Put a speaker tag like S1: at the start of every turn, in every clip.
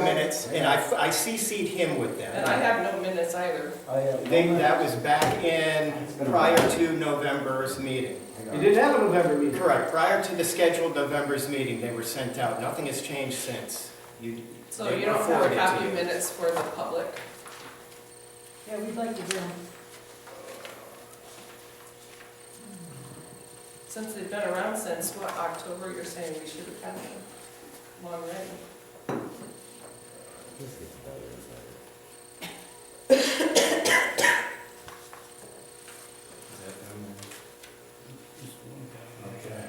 S1: minutes, and I, I CC'd him with
S2: And I
S1: that.
S2: have no minutes either.
S3: I
S4: uh,
S3: have.
S1: They, that was back in, prior to November's meeting.
S5: You didn't have a November meeting.
S1: Correct, prior to the scheduled November's meeting, they were sent out. Nothing has changed since. You,
S2: So
S1: They
S2: you don't have a
S1: forwarded to
S2: copy
S1: you.
S2: minutes for the public.
S6: Yeah, we'd like to do them.
S2: Since they've been around since, what, October, you're saying we should have had them long ready?
S3: Okay.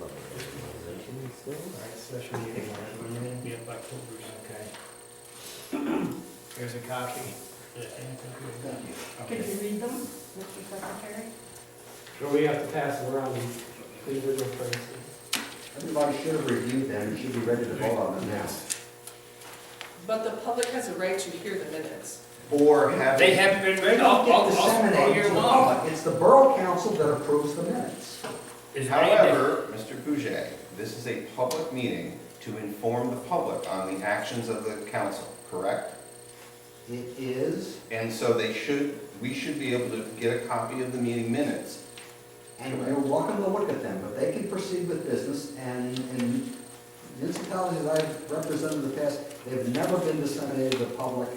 S3: Alright, special meeting, alright.
S5: We have October's.
S3: Okay.
S1: here's a copy.
S6: Could you read them, Mr. Secretary?
S5: Or we have to pass it around and leave it in place.
S4: Everybody should have reviewed them, you should be ready to vote on them now.
S2: But the public has a right to hear the minutes.
S4: Or have.
S7: They haven't been
S4: They
S7: read
S4: don't
S7: all,
S4: get
S7: all, all all
S4: disseminated
S7: year
S4: to the
S7: long.
S4: public, it's the borough council that approves the minutes.
S7: Is there any-
S8: However, Mr. Boujay, this is a public meeting to inform the public on the actions of the council, correct?
S4: It is,
S8: And so they should, we should be able to get a copy of the meeting minutes.
S4: and you're welcome to look at them, but they can proceed with business, and, and municipalities that I've represented in the past, they've never been disseminated to the public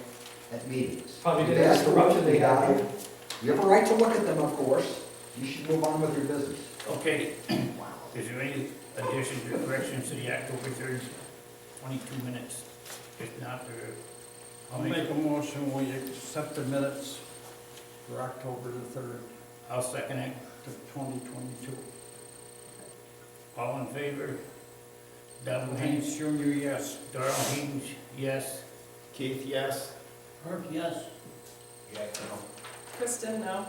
S4: at meetings.
S5: Probably
S4: You've
S5: didn't have
S4: asked them
S5: corruption
S4: if they
S5: they
S4: got
S5: got.
S4: them. You have a right to look at them, of course, you should move on with your business.
S7: okay,
S4: Wow.
S7: is there any additions or corrections to the October third, twenty-two minutes? If not, there,
S3: I'll make a motion, we accept the minutes for October the third
S7: I'll second it.
S3: of twenty twenty-two.
S7: All in favor? Donald Haynes,
S3: Haynes Junior, yes.
S7: Darrell Haynes, yes.
S1: Keith, yes?
S5: Herb, yes.
S2: Kristen, no?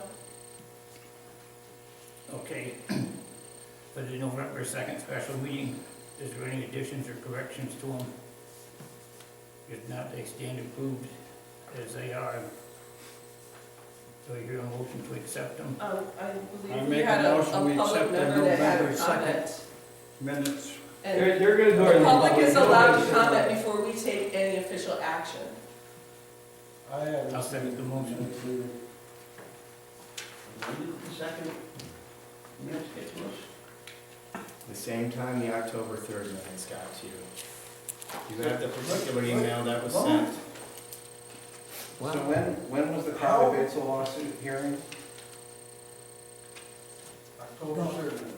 S7: Okay. For the November second special meeting, is there any additions or corrections to them? If not, they stand approved as they are. So you're a motion to accept them?
S2: Um, I
S3: I
S2: believe we
S3: make a
S2: had a, a
S3: motion we
S2: public
S3: accept the
S2: member that had a
S3: November second.
S2: comment.
S3: Minutes,
S2: And
S5: They're, they're gonna go.
S2: the
S5: in
S2: public is allowed to
S5: Sure.
S2: comment before we take any official action.
S3: I have.
S7: I'll second the motion.
S5: Second. Minutes get to us.
S1: The same time the October third minutes got to you. You got the particular email that was sent.
S8: So when, when was the Crowley Basil lawsuit hearing?
S3: October third.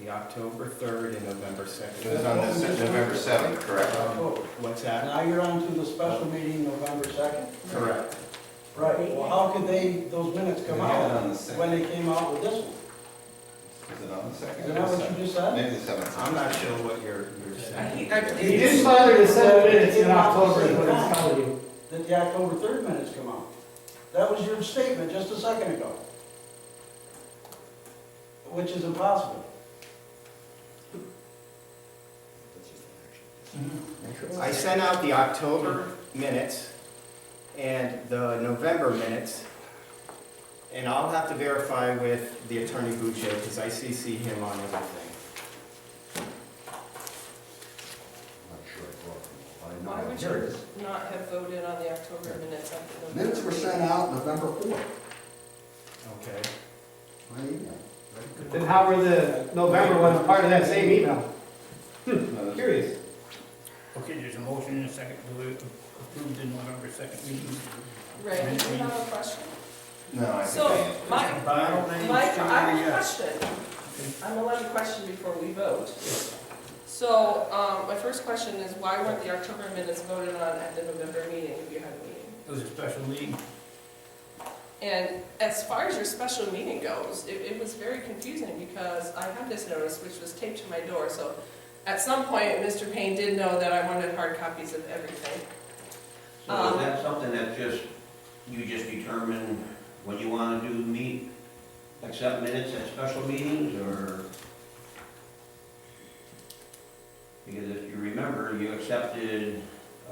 S1: The October third and November second.
S8: It was on this- November 7th, correct?
S1: Um, What's that?
S3: Now you're on to the special meeting November second.
S1: Correct.
S3: Right, well, how could they, those minutes come out when they came out with this one?
S8: Is it on the second?
S3: Is that what you just said?
S8: Maybe the seventh.
S1: I'm not sure what you're, you're
S2: I
S1: saying.
S2: think, I
S5: He
S2: believe.
S5: just started to send minutes in October, is what it's telling you.
S3: That the October third minutes come out? That was your statement just a second ago. Which is impossible.
S1: I sent out the October minutes and the November minutes. And I'll have to verify with the attorney Boucher, because I CC him on everything.
S4: I'm not sure I brought them. all. I
S2: Why
S4: know
S2: would
S4: Here it
S2: you
S4: is.
S2: not have voted on the October minutes? after the-
S4: Minutes were sent out November fourth,
S1: Okay.
S4: my email.
S5: Then how were the November ones part of that same email? Hmm,
S8: No, this-
S5: Curious.
S7: Okay, there's a motion and a second to approve the November second meeting.
S2: Ray, do you have a question?
S8: No, I think
S2: So,
S8: I answered.
S2: my,
S3: Donald A.
S2: my, I have
S3: Junior,
S2: a
S3: yes.
S2: question. I'm allowed a question before we vote. So, um, my first question is, why weren't the October minutes voted on at the November meeting, if you had a meeting?
S7: It was a special meeting.
S2: And as far as your special meeting goes, it, it was very confusing because I had this notice which was taped to my door, so at some point, Mr. Payne did know that I wanted hard copies of everything.
S9: So is that something that just, you just determine when you want to do meet, accept minutes at special meetings, or? Because if you remember, you accepted,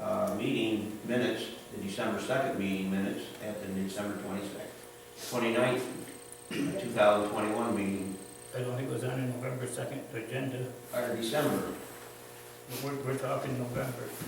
S9: uh, meeting minutes, the December second meeting minutes at the December twenty-sixth, twenty-ninth, two thousand twenty-one meeting,
S7: I don't think it was on the November second agenda.
S9: or December.
S7: We're, we're talking November.